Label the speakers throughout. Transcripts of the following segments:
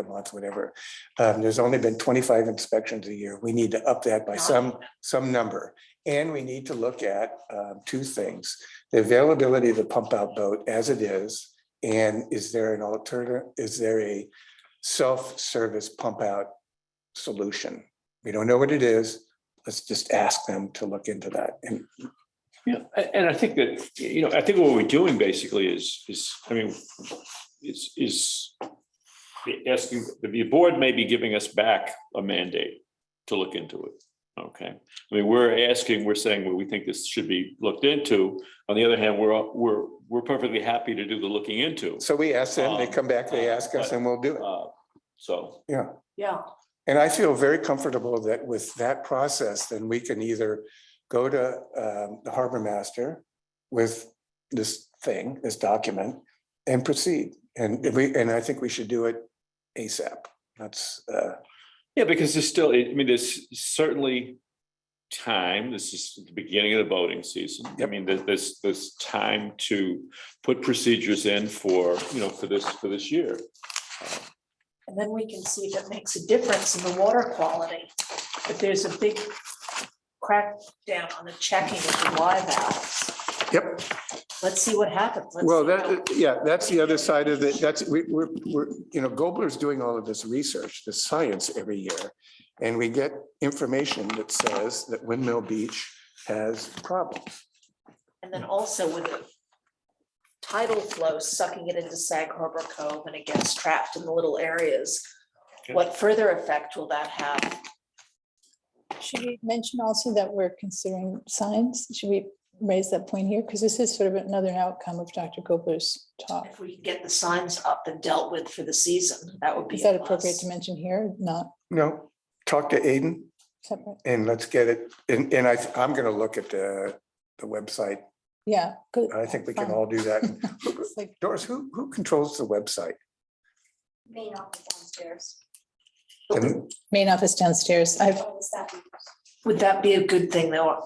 Speaker 1: a month, whatever. Um, there's only been twenty-five inspections a year. We need to up that by some, some number. And we need to look at, um, two things. The availability of the pump out boat as it is. And is there an alternative, is there a self-service pump out solution? We don't know what it is. Let's just ask them to look into that. And
Speaker 2: Yeah, a- and I think that, you know, I think what we're doing basically is, is, I mean, is, is asking, the board may be giving us back a mandate to look into it. Okay, I mean, we're asking, we're saying, well, we think this should be looked into. On the other hand, we're, all- we're, we're perfectly happy to do the looking into.
Speaker 1: so we ask them, they come back, they ask us and we'll do it.
Speaker 2: Uh, So,
Speaker 3: Yeah,
Speaker 1: And I feel very comfortable that with that process, then we can either go to um, the harbor master with this thing, this document, and proceed. And we, and I think we should do it ASAP. That's, uh,
Speaker 2: yeah, because there's still, I mean, there's certainly time, this is the beginning of the voting season. I
Speaker 1: Yep.
Speaker 2: mean, there's, there's, there's time to put procedures in for, you know, for this, for this year.
Speaker 3: and then we can see if it makes a difference in the water quality. But there's a big crackdown on the checking of the live valves.
Speaker 1: Yep.
Speaker 3: Let's see what happens. Let's
Speaker 1: well,
Speaker 3: see how-
Speaker 1: that, yeah, that's the other side of it. That's, we, we're, we're, you know, Gobler's doing all of this research, the science every year. And we get information that says that Windmill Beach has problems.
Speaker 3: And then also with the tidal flow sucking it into Sag Harbor Cove and it gets trapped in the little areas.
Speaker 2: Okay.
Speaker 3: What further effect will that have?
Speaker 4: Should we mention also that we're considering signs? Should we raise that point here? Because this is sort of another outcome of Dr. Gobler's talk.
Speaker 3: If we can get the signs up and dealt with for the season, that would be.
Speaker 4: Is that
Speaker 3: a
Speaker 4: appropriate
Speaker 3: plus.
Speaker 4: to mention here? Not
Speaker 1: No, talk to Aiden.
Speaker 4: separate?
Speaker 1: And let's get it, and, and I, I'm gonna look at the, the website.
Speaker 4: Yeah. good.
Speaker 1: I think we can
Speaker 4: Fine.
Speaker 1: all do that.
Speaker 4: It's like,
Speaker 1: Doris, who, who controls the website?
Speaker 5: main office downstairs.
Speaker 1: And
Speaker 4: Main office downstairs. I've,
Speaker 5: All the staff members.
Speaker 3: Would that be a good thing though,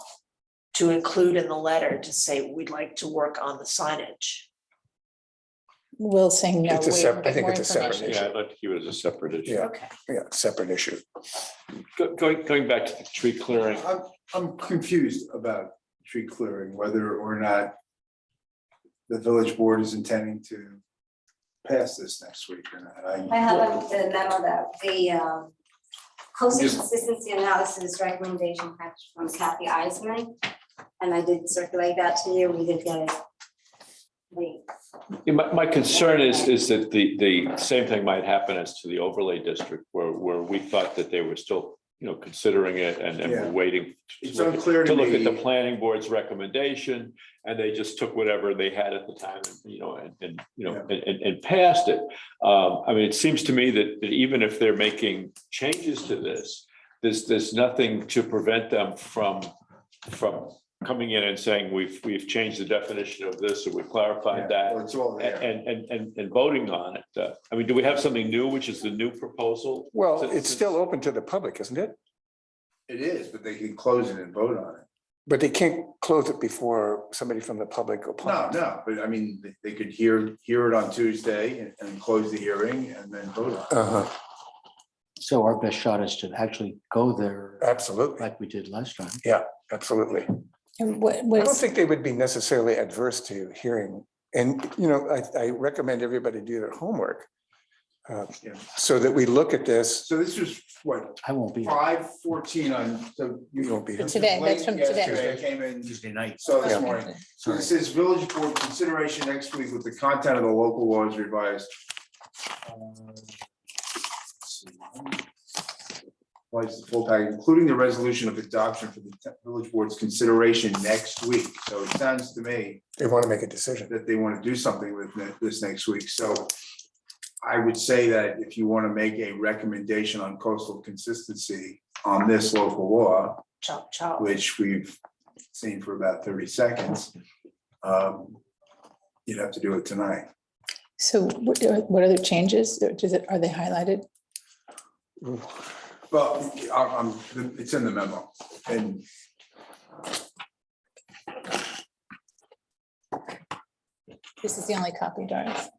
Speaker 3: to include in the letter to say we'd like to work on the signage?
Speaker 4: Will saying no.
Speaker 1: It's a
Speaker 4: wait,
Speaker 1: sep- I
Speaker 4: get
Speaker 1: think
Speaker 4: more
Speaker 1: it's a separate
Speaker 4: information.
Speaker 2: Yeah, I'd like to keep it as a separate issue.
Speaker 1: Yeah.
Speaker 3: Okay.
Speaker 1: yeah, separate issue.
Speaker 2: Go- Going, going back to the tree clearing,
Speaker 6: I'm, I'm confused about tree clearing, whether or not the village board is intending to pass this next week or not.
Speaker 5: I have on the memo that the um, cost consistency analysis recommendation package from Kathy Eisman. And I did circulate that to you, we did get it. We,
Speaker 2: Yeah, my, my concern is, is that the, the same thing might happen as to the overlay district where, where we thought that they were still, you know, considering it and, and were
Speaker 6: Yeah.
Speaker 2: waiting to
Speaker 6: It's
Speaker 2: look at-
Speaker 6: unclear
Speaker 2: to
Speaker 6: to
Speaker 2: look at the
Speaker 6: me,
Speaker 2: planning board's recommendation, and they just took whatever they had at the time, you know, and, and, you know, and, and, and passed it. Um, I mean, it seems to me that, that even if they're making changes to this, there's, there's nothing to prevent them from, from coming in and saying, we've, we've changed the definition of this, or we clarified that.
Speaker 6: well, it's all there.
Speaker 2: And, and, and, and voting on it. Uh, I mean, do we have something new, which is the new proposal?
Speaker 1: Well, it's still open to the public, isn't it?
Speaker 6: It is, but they can close it and vote on it.
Speaker 1: But they can't close it before somebody from the public
Speaker 6: No,
Speaker 1: applies.
Speaker 6: no, but I mean, they- they could hear, hear it on Tuesday and, and close the hearing and then vote on it.
Speaker 1: Uh-huh,
Speaker 7: So our best shot is to actually go there
Speaker 1: absolutely,
Speaker 7: like we did last time.
Speaker 1: absolutely.
Speaker 4: And what
Speaker 1: I don't
Speaker 4: was,
Speaker 1: think they would be necessarily adverse to hearing, and, you know, I, I recommend everybody do their homework. uh,
Speaker 6: Yeah.
Speaker 1: So that we look at this,
Speaker 6: So this was, what,
Speaker 7: I won't be.
Speaker 6: five fourteen on, so
Speaker 1: you
Speaker 6: you.
Speaker 1: won't be here.
Speaker 4: Today, that's
Speaker 6: Late
Speaker 4: from today.
Speaker 6: yesterday, I Came in,
Speaker 7: Tuesday night.
Speaker 6: saw this morning. So it says village board consideration next week with the content of the local laws revised. Uh, Was the full package, including the resolution of adoption for the te- village board's consideration next week. So it sounds to me
Speaker 1: They want to make a decision.
Speaker 6: that they want to do something with ne- this next week. So I would say that if you want to make a recommendation on coastal consistency on this local law,
Speaker 3: Chop, chop.
Speaker 6: which we've seen for about thirty seconds. um, You'd have to do it tonight.
Speaker 4: so what what are the changes? Does it, are they highlighted?
Speaker 6: Well, I'm, I'm- it's in the memo and
Speaker 4: This is the only copy, Doris.